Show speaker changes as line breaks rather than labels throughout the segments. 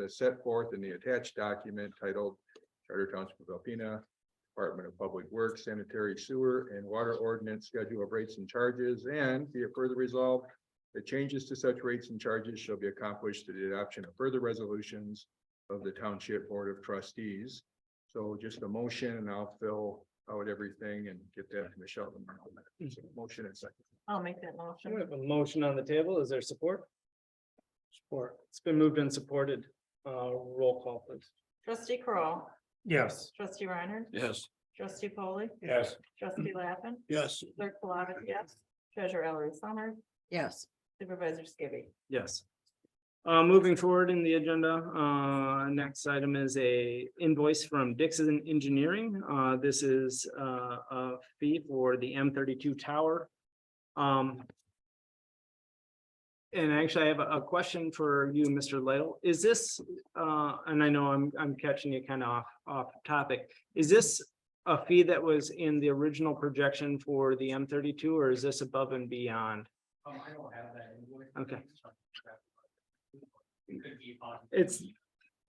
as set forth in the attached document titled Charter Township of Alpena, Department of Public Works Sanitary Sewer and Water Ordinance Schedule of Rates and Charges, and be it further resolved that changes to such rates and charges shall be accomplished through the adoption of further resolutions of the Township Board of Trustees. So just a motion and I'll fill out everything and get that to Michelle. tomorrow. So Motion and second.
I'll make that
Okay, We
motion.
have a motion on the table. Is there support? Support. It's been moved and supported. Uh, roll call please.
Trustee Kroll,
Yes.
trustee Reiner,
Yes.
trustee Polly,
Yes.
trustee Lappin,
Yes.
clerk Plavich, yes. Treasurer Ellery Summers,
yes,
supervisor Skibby.
Yes. Uh, moving forward in the agenda, uh, next item is a invoice from Dixon Engineering. Uh, this is, uh, a fee for the M thirty-two tower. Um. And actually, I have a, a question for you, Mr. Lidle. Is this, uh, and I know I'm, I'm catching you kind of off, off topic. Is this a fee that was in the original projection for the M thirty-two, or is this above and beyond?
Um, I don't have that invoice.
Okay.
It could be on.
It's,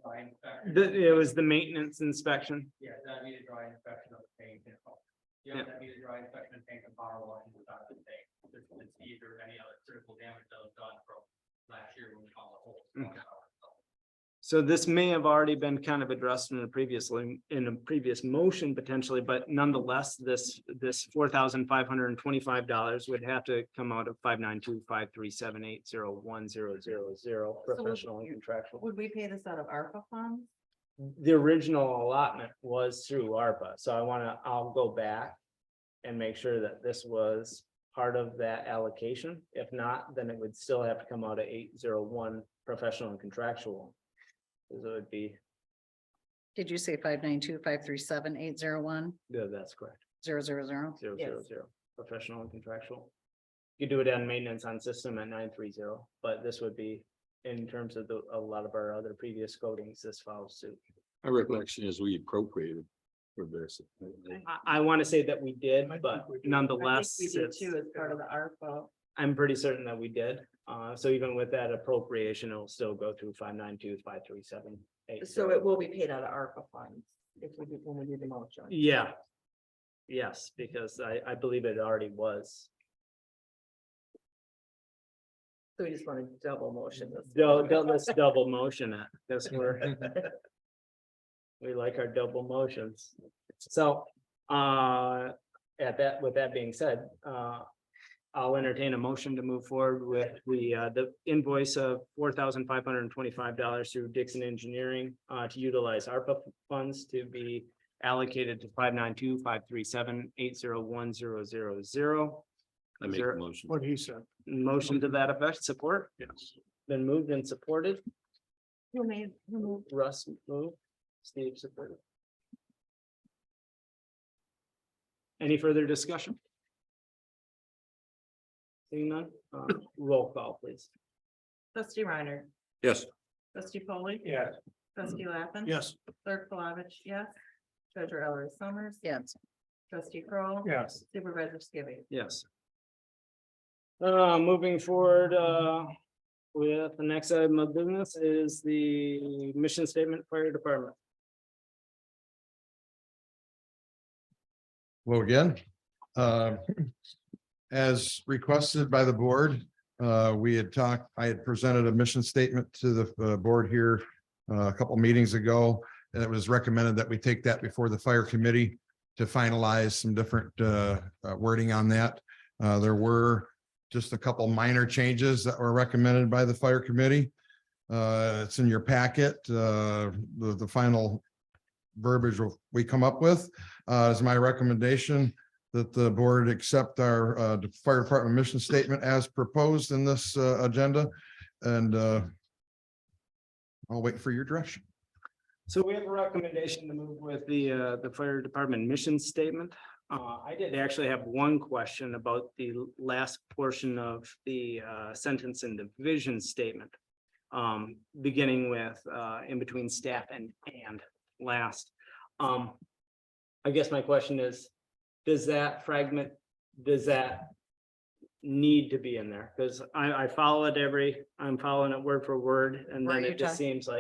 Drawing inspection.
The, it was the maintenance inspection.
Yeah, that need a dry inspection of the tank. and all.
Yeah.
Yeah, that need a dry inspection of tank and power washing without the tank. There's no disease or any other critical damage that was done from last year when we found the hole.
Okay. So this may have already been kind of addressed in a previously, in a previous motion potentially, but nonetheless, this, this four thousand five hundred and twenty-five dollars would have to come out of five nine two five three seven eight zero one zero zero zero
would
professional and
you-
contractual.
Would we pay this out of ARPA funds?
The original allotment was through ARPA, so I wanna, I'll go back and make sure that this was part of that allocation. If not, then it would still have to come out of eight zero one professional and contractual. Cause it would be,
did you say five nine two five three seven eight zero one
yeah, that's correct,
zero zero zero?
zero
Yes.
zero zero, professional and contractual. You do it on maintenance on system at nine three zero, but this would be in terms of the, a lot of our other previous codings, this follows suit.
My recollection is we appropriated for this.
I, I wanna say that we did, but
I
nonetheless.
think we did
it's-
too as part of the ARPA.
I'm pretty certain that we did. Uh, so even with that appropriation, it'll still go through five nine two, five three seven eight.
So it will be paid out of ARPA funds if we do, when we do the motion.
Yeah. Yes, because I, I believe it already was.
So we just want to double motion this.
Don't, don't let's double motion it. That's where. We like our double motions. So, uh, at that, with that being said, uh, I'll entertain a motion to move forward with the, uh, the invoice of four thousand five hundred and twenty-five dollars through Dixon Engineering, uh, to utilize ARPA funds to be allocated to five nine two, five three seven, eight zero one, zero, zero, zero.
I make a motion.
he said. Motion to that effect, support? Yes. Been moved and supported.
Who made, who moved?
Russ moved, Steve supported. Any further discussion? Seeing none, uh, roll call please.
Trustee Reiner,
Yes.
trustee Polly.
Yeah.
Trustee Lappin.
Yes.
Clerk Plavich, yes. Treasurer Ellery Summers.
Yes,
Trustee Kroll.
Yes.
Supervisor Skibby.
Yes. Uh, moving forward, uh, with the next item of business is the mission statement fire department.
Hello again. Uh, As requested by the board, uh, we had talked, I had presented a mission statement to the uh, board here uh, a couple meetings ago, and it was recommended that we take that before the fire committee to finalize some different uh, uh, wording on that. Uh, There were just a couple minor changes that were recommended by the fire committee. Uh, It's in your packet, uh, the, the final verbiage we come up with. Uh, is my recommendation that the board accept our, uh, fire department mission statement as proposed in this, uh, agenda and, uh, I'll wait for your direction.
So we have a recommendation to move with the, uh, the fire department mission statement. Uh, I did actually have one question about the last portion of the, uh, sentence in the vision statement. Um, beginning with, uh, in between staff and, and last. Um, I guess my question is, does that fragment, does that need to be in there? Because I, I follow it every, I'm following it word for word, and
Were
then
you
it just
talking-
seems like